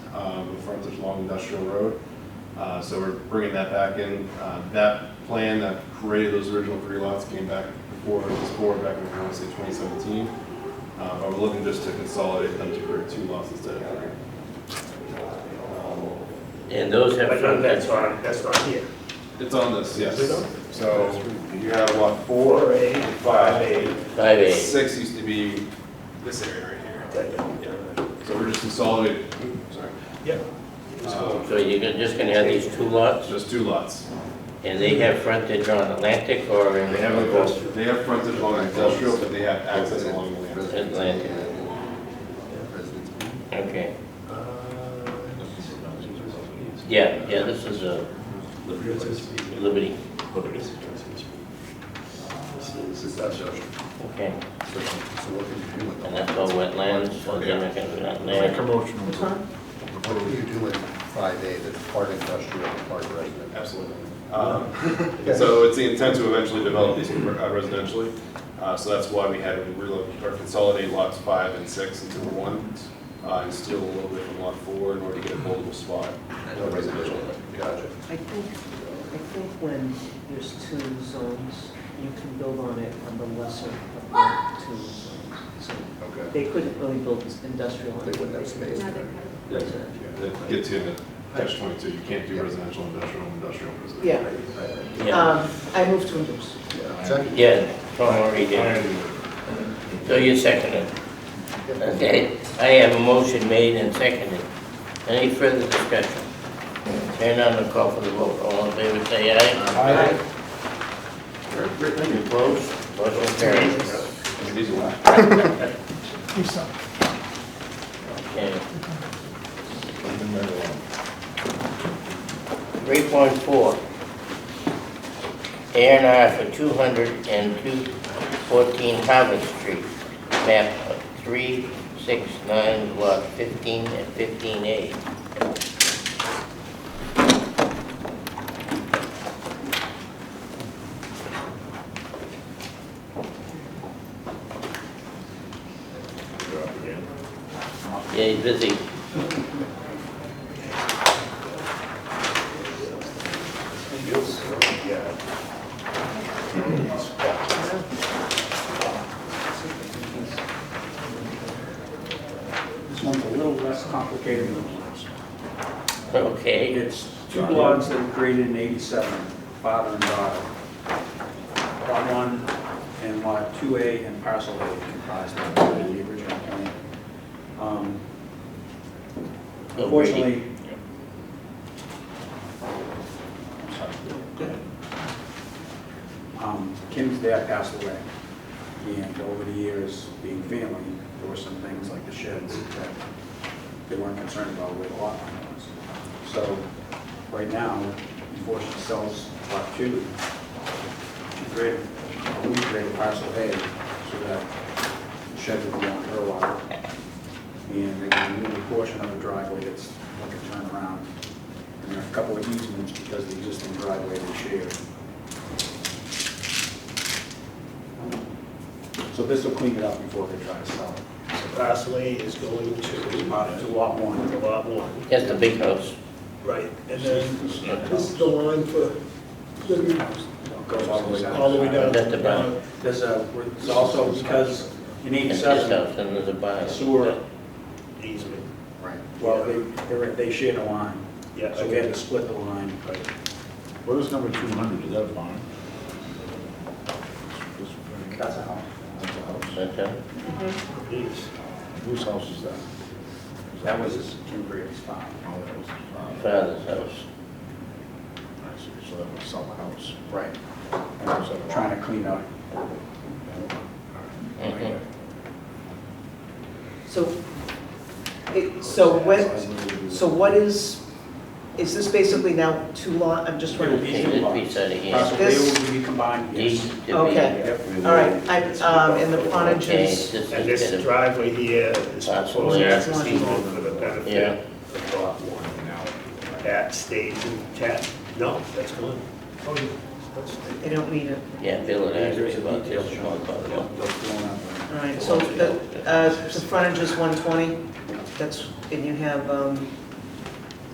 um, with frontage along Industrial Road. Uh, So we're bringing that back in. Uh, That plan that created those original three lots came back before this board back in, I want to say, 2017. Uh, But we're looking just to consolidate them to create two lots instead of three. And those have. But none, that's not, that's not here. It's on this, yes. Is it on? So you have lot four, A, five, eight, Five A. six used to be this area right here. So we're just consolidating, oops, sorry, Yeah. Uh, So you're gonna- just gonna have these two lots, just two lots. and they have frontage on Atlantic or in They have, a- they have frontage along industrial, but they have access along the land. Atlantic? Okay, yeah, yeah, this is a Liberty, This is not showing. okay. And that's all wetlands, so they're not gonna be out Make a there. motion. What do you do in five A that's part industrial and part resident? Absolutely. Um, So it's the intent to eventually develop these uh, residentially. Uh, So that's why we had to relocate or consolidate lots five and six into one uh, and steal a little bit from lot four in order to get a buildable spot. No residential, gotcha. I think, I think when there's two zones, you can build on it on the lesser of the two zones. So Okay. they couldn't really build this industrial. on They wouldn't have space. That gets you into catch twenty-two. You can't do residential, industrial, industrial, residential. Yeah, Yeah, um, I moved to endorse. Second? yeah, Tom already did. So you seconded. Okay, I have a motion made and seconded. Any further discussion? Turn on the call for the vote. All in favor, say aye. Great, thank you. Close. Motion carries. Easy one. Okay. Three point four. A and R for two hundred and two fourteen Harvard Street, map three six nine, lot fifteen and fifteen A. Yeah, he's busy. This one's a little less complicated than the last. Okay, It's two lots that were created in 87, father and daughter. Lot 1 and Lot 2A and parcel A comprised of the original plan. Um, Unfortunately... I'm sorry. Um, Kim's dad passed away, and over the years, being family, there were some things like the sheds that they weren't concerned about with lot line was. So, right now, before she sells lot two, she created, we created parcel A, so that the shed would be on her lot. And they can move a portion of the driveway that's like a turnaround, and there are a couple of easements because the existing driveway was shared. So this will clean it up before they try to sell it. Parcel A is going Uh, To to lot one. to lot one, that's the big house. right, and then this is the line for Liberty House, Goes all the way down. all the way down. That's the brown. There's a, it's also because in That's his house, eighty-seven, and there's a barn. sewer, Easement, Right. well, they, they're- they shared a line. yeah. So we had to split the line. What is number two hundred, is that a barn? That's a house. That's a house. That's a- Yes. Whose house is that? That was Kim Greer's farm. Oh, that was his father. father's house. I see, so that was sell the house. Right. And I was trying to clean up. Mhm. Mm-hmm. So, it, so when, so what is, is this basically now two lot, I'm just trying to. It This piece out of here. Parcel A will be combined, These yes. to be- Okay. Yep. All right, I, um, and the frontage Okay, is, this is And this gonna- driveway here is Parcel proposed A. as an easement for the benefit of lot one. Now, That stays intact, no, that's gone. Oh, yeah, that's they don't need it. Yeah, Bill and I agree There's a about detail this. shown. Yep, they'll fill in that. All right, so the, uh, the frontage is one twenty, that's, and you have, um,